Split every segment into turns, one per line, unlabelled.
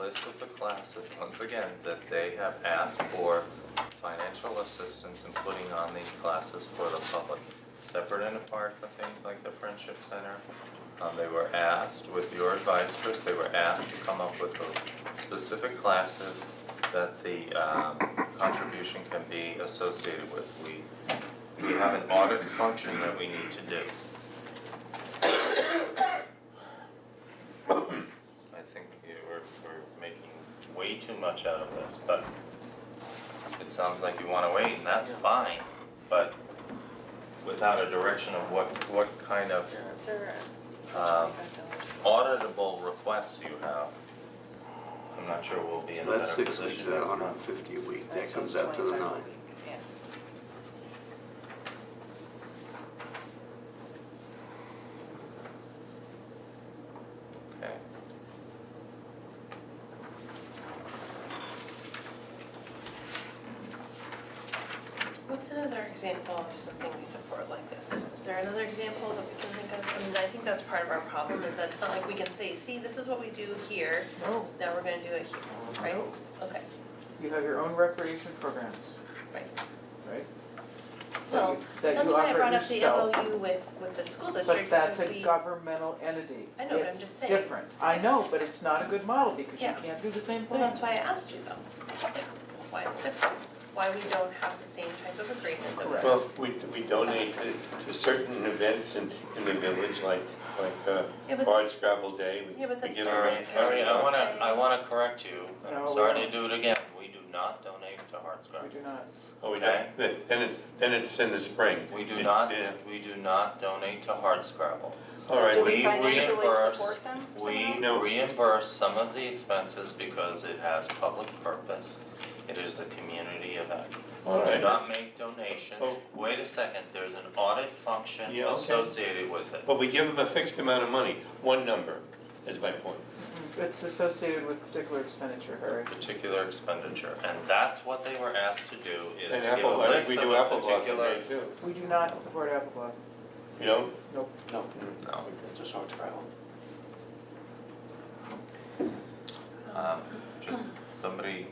list of the classes, once again, that they have asked for financial assistance in putting on these classes for the public, separate and apart from things like the Friendship Center. Um, they were asked, with your advice, Chris, they were asked to come up with the specific classes that the, um, contribution can be associated with. We, we have an audit function that we need to do. I think we- we're, we're making way too much out of this, but it sounds like you wanna wait, and that's fine, but without a direction of what, what kind of Uh, um, auditable requests you have, I'm not sure we'll be in a
That's
better
six weeks
position
at
next
hundred and
month.
fifty a week, that comes out to the nine.
Okay.
What's another example of something we support like this? Is there another example that we can think of? I mean, I think that's part of our problem, is that it's not like we can say, see, this is what we do here,
No,
now we're gonna do it here, right?
No.
Okay,
Oh, you have your own recreation programs,
right.
right?
Well,
That you
that's why I
offer
brought up the
yourself.
MOU with, with the school
But
district, because
that's
we.
a governmental entity.
I know, but I'm just saying.
It's different. I know, but it's not a good model because you
Yeah.
can't do the same
Well,
thing.
that's why I asked you though, why it's different, why we don't have the same type of agreement that we.
Correct.
Well, we, we donate to, to certain events in, in the village, like, like, uh,
Yeah, but
Bard
that's-
Scrabble Day, we,
Yeah, but
we
that's
give
different,
away.
Alright,
Because
alright,
we
I wanna,
say-
I wanna correct you,
No,
I'm
we
sorry to
don't.
do it again, we do not donate to Hearts Club.
We do not.
Oh, we don't, then, then it's, then it's in the spring.
We do
Yeah,
not,
Yeah,
we do not donate to Heart Scrabble.
all right,
Do
we-
we
we
financially
reimburse-
support them
We
somehow?
No.
reimburse some of the expenses because it has public purpose. It is a community event.
all
Do
right,
not make donations.
Oh.
Wait a second, there's an audit function
Yeah, okay. Oh.
associated with it.
but we give them a fixed amount of money, one number, is my point.
It's associated with particular expenditure, Harry.
Particular expenditure, and that's what they were asked to do, is to
And
give a
apple, I think
list
we
of
do
a
apple blossom
particular.
day too,
We do not support Apple Blossom.
you know?
Nope.
No.
No.
Just all travel.
Um, just somebody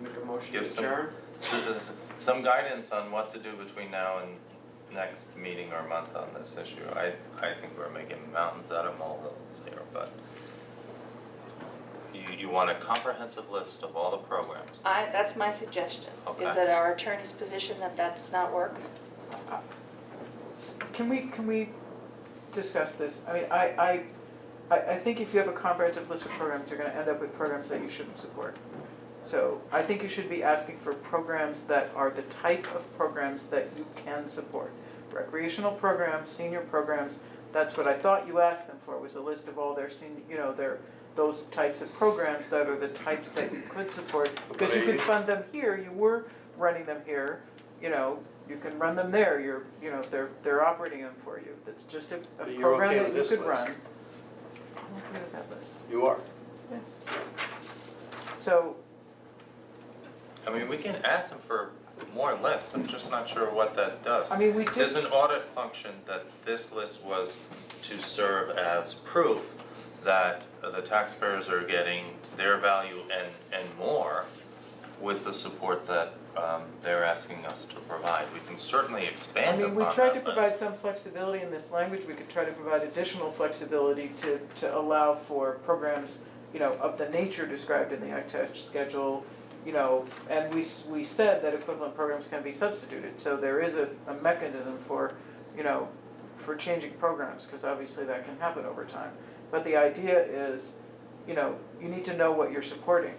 Make a motion to
give some,
adjourn?
s- some guidance on what to do between now and next meeting or month on this issue. I, I think we're making mountains out of molehills here, but you, you want a comprehensive list of all the programs.
I, that's my suggestion,
Okay.
is that our attorney's position that that does not work.
S- Can we, can we discuss this? I mean, I, I, I, I think if you have a comprehensive list of programs, you're gonna end up with programs that you shouldn't support. So I think you should be asking for programs that are the type of programs that you can support. Recreational programs, senior programs, that's what I thought you asked them for, was a list of all their senior, you know, their, those types of programs that are the types that you could support. Because you could
Right.
fund them here, you were running them here, you know, you can run them there, you're, you know, they're, they're operating them for you. That's just a, a
You're
program
okay
that
with
you
this
could
list?
run. I'm okay with that list,
You are.
yes. So,
I mean, we can ask them for more lists, I'm just not sure what that does.
I mean, we do.
There's an audit function that this list was to serve as proof that the taxpayers are getting their value and, and more with the support that um, they're asking us to provide. We can certainly
I
expand
mean,
upon
we tried to
that
provide
list.
some flexibility in this language, we could try to provide additional flexibility to, to allow for programs, you know, of the nature described in the ITech schedule, you know, and we, s- we said that equivalent programs can be substituted, so there is a, a mechanism for, you know, for changing programs, because obviously that can happen over time. But the idea is, you know, you need to know what you're supporting.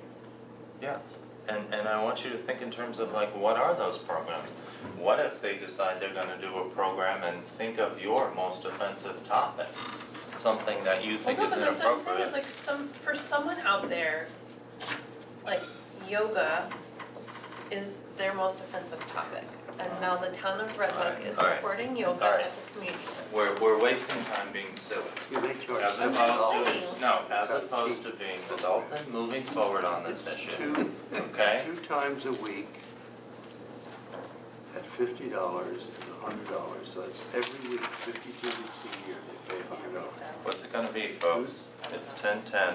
Yes, and, and I want you to think in terms of like, what are those programs? What if they decide they're gonna do a program and think of your most offensive topic? Something that you think is
Well, no, but that's what I'm saying,
inappropriate.
is like some, for someone out there, like yoga is their most offensive topic. And now the town of Red Hook is
All right.
supporting yoga
All right.
at the community center.
We're, we're wasting time being silly.
You make your
As
seven
opposed
saying.
to, no, as opposed to being adult and moving forward on this
It's
issue,
two,
okay?
two times a week at fifty dollars is a hundred dollars, so that's every week, fifty-two weeks a year, they pay a hundred dollars.
What's it gonna be, folks? It's ten ten,